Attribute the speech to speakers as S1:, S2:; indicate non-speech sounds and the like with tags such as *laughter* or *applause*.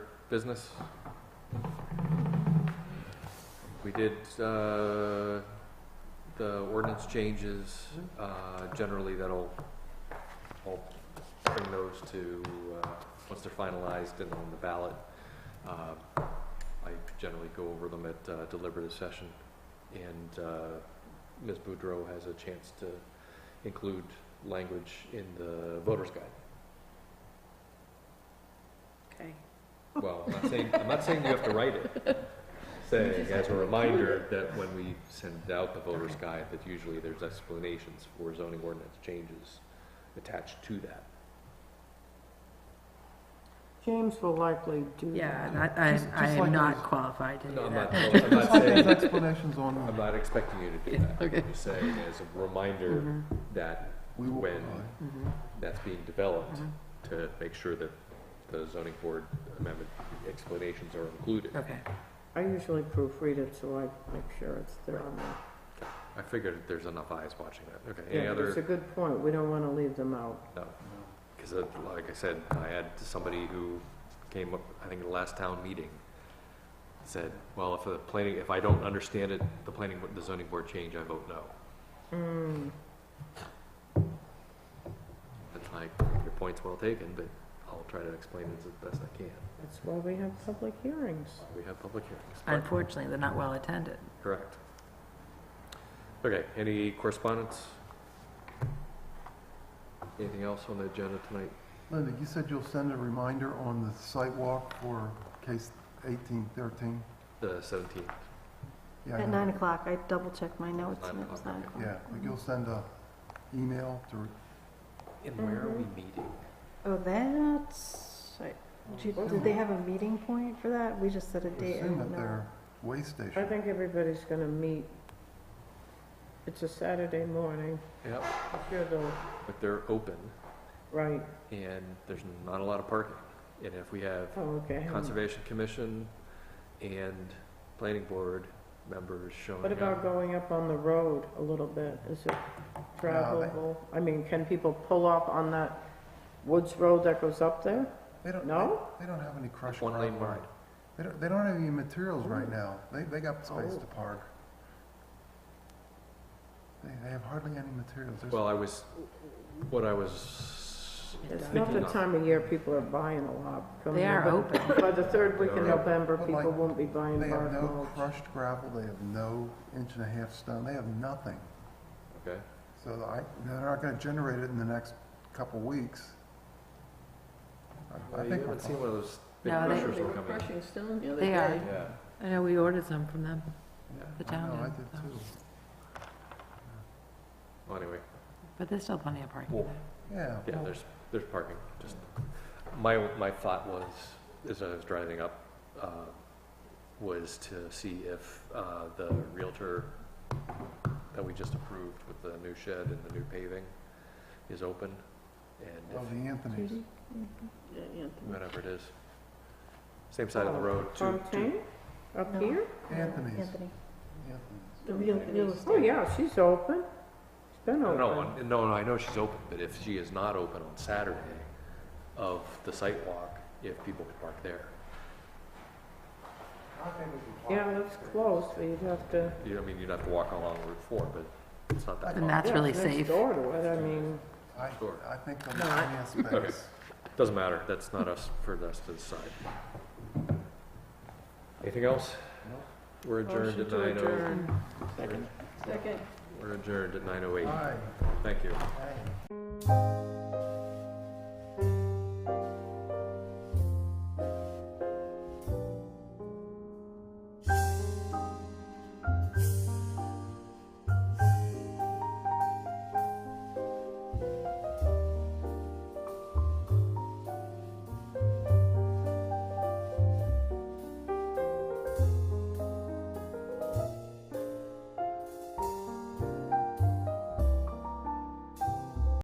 S1: business? We did, uh, the ordinance changes, uh, generally that'll, I'll bring those to, uh, once they're finalized and on the ballot. Uh, I generally go over them at uh, deliberative session, and uh, Ms. Boudreau has a chance to include language in the voter's guide.
S2: Okay.
S1: Well, I'm not saying, I'm not saying you have to write it. Saying as a reminder that when we send out the voter's guide, that usually there's explanations for zoning ordinance changes attached to that.
S3: James will likely do that.
S2: Yeah, and I,
S3: Just-
S2: I, I
S3: just like
S2: am not
S3: those.
S2: qualified to do
S1: No, I'm not,
S2: that.
S1: I'm
S3: Just
S1: not
S3: like those
S1: saying,
S3: explanations
S1: I'm
S3: on,
S1: not expecting you to do
S2: Yeah,
S1: that.
S2: okay.
S1: I'm just saying as a
S4: Mm-hmm.
S1: reminder
S5: Mm-hmm,
S3: Mhm,
S1: that
S5: We will
S1: when
S5: provide.
S3: mhm,
S1: that's being developed,
S3: mhm.
S5: mm-hmm.
S1: to make sure that the zoning board amendment explanations are included.
S2: Okay,
S3: I usually proofread it, so I make sure it's there on there.
S1: I figured there's enough eyes watching that. Okay, any
S3: Yeah,
S1: other?
S3: It's a good point, we don't wanna leave them out.
S1: Because, uh, like I said, I had somebody who came up, I think, at the last town meeting, said, well, if the planning, if I don't understand it, the planning, board- the zoning board change, I vote no.
S3: Mm,
S1: It's like, your point's well taken, but I'll try to explain it as best I can.
S3: that's why we have public hearings.
S1: We have public hearings. Correct.
S2: unfortunately, they're not well attended.
S1: Correct. Okay, any correspondence? Anything else on the agenda tonight?
S5: Linda, you said you'll send a reminder on the site walk for case eighteen thirteen?
S1: The seventeenth,
S5: Yeah, I
S4: At
S5: know.
S4: nine o'clock, I double-checked my notes, and it was
S1: Nine
S4: nine
S1: o'clock,
S4: o'clock.
S5: Yeah, but you'll send a email to,
S1: and where are we meeting?
S4: Oh, that's, I- do- did they have a meeting point for that? We just set a date. I
S5: assume
S4: don't
S5: that
S4: know.
S5: their way
S3: I
S5: station.
S3: think everybody's gonna meet. It's a Saturday morning,
S1: Yep,
S3: I'm sure they'll,
S1: but they're open.
S3: right,
S1: and there's not a lot of parking. And if we have
S3: oh, okay.
S1: Conservation Commission and Planning Board members showing
S3: What about
S1: up,
S3: going up on the road a little bit? Is it
S5: No, they-
S3: travelable? I mean, can people pull up on that woods road that goes up there?
S5: They don't,
S3: No?
S5: they- they don't have any crushed
S1: one lane
S5: gravel.
S1: wide.
S5: They don't, they don't have any
S4: Oh.
S5: materials right now. They, they got space
S3: Oh.
S5: to park. They, they have hardly any materials. There's-
S1: Well, I was, what I was
S3: It's not the
S1: thinking of,
S3: time of year people are buying a lot. Come
S2: They are
S3: November-
S2: open.
S3: By the third week in
S1: They are open.
S3: November,
S5: But
S3: people
S5: like,
S3: won't be buying
S5: They have
S3: bark
S5: no
S3: mulch.
S5: crushed gravel, they have no inch and a half stone, they have nothing.
S1: okay,
S5: So I, they're not gonna generate it in the next couple weeks. I- I
S1: Well, you
S5: think we're
S1: haven't seen
S5: fine.
S1: one of those big
S2: No, they-
S1: crushers that come in.
S2: They are.
S1: Yeah,
S2: I know we ordered some from them.
S1: yeah,
S2: The
S5: I know,
S2: town
S5: I
S2: did,
S5: did
S2: so.
S5: too.
S1: well, anyway,
S2: But there's still plenty of parking
S1: Well,
S2: there.
S5: Yeah.
S1: yeah,
S5: well,
S1: there's, there's parking, just, my, my thought was, as I was driving up, uh, was to see if, uh, the Realtor that we just approved with the new shed and the new paving is open,
S5: Well,
S1: and
S5: the Anthony's,
S4: Judy? Mhm.
S1: if- whatever it is. Same side of the road, two, two,
S3: Fontaine, up
S4: No.
S3: here?
S5: Anthony's,
S4: Anthony.
S5: Anthony's.
S4: The real, real
S3: Oh,
S4: estate.
S3: yeah, she's open. It's been
S1: no,
S3: open.
S1: no, one- no, no, I know she's open, but if she is not open on Saturday of the site walk, if people could park there.
S3: Yeah, that's close, but you'd have to,
S1: You, I mean, you'd have to walk along Route Four, but it's not that
S2: And
S1: far.
S2: that's
S3: yeah,
S2: really
S3: it's next
S2: safe.
S3: door to it, I mean,
S5: I,
S1: Sure.
S5: I think they'll
S3: No, I-
S1: *laughs*
S5: have space.
S1: Doesn't matter, that's not us, for us to decide. Anything else? We're adjourned
S3: motion
S1: at
S3: to
S1: nine oh.
S3: adjourn.
S1: Second. We're adjourned at nine oh eight,
S5: Aye,
S1: thank you.
S5: aye.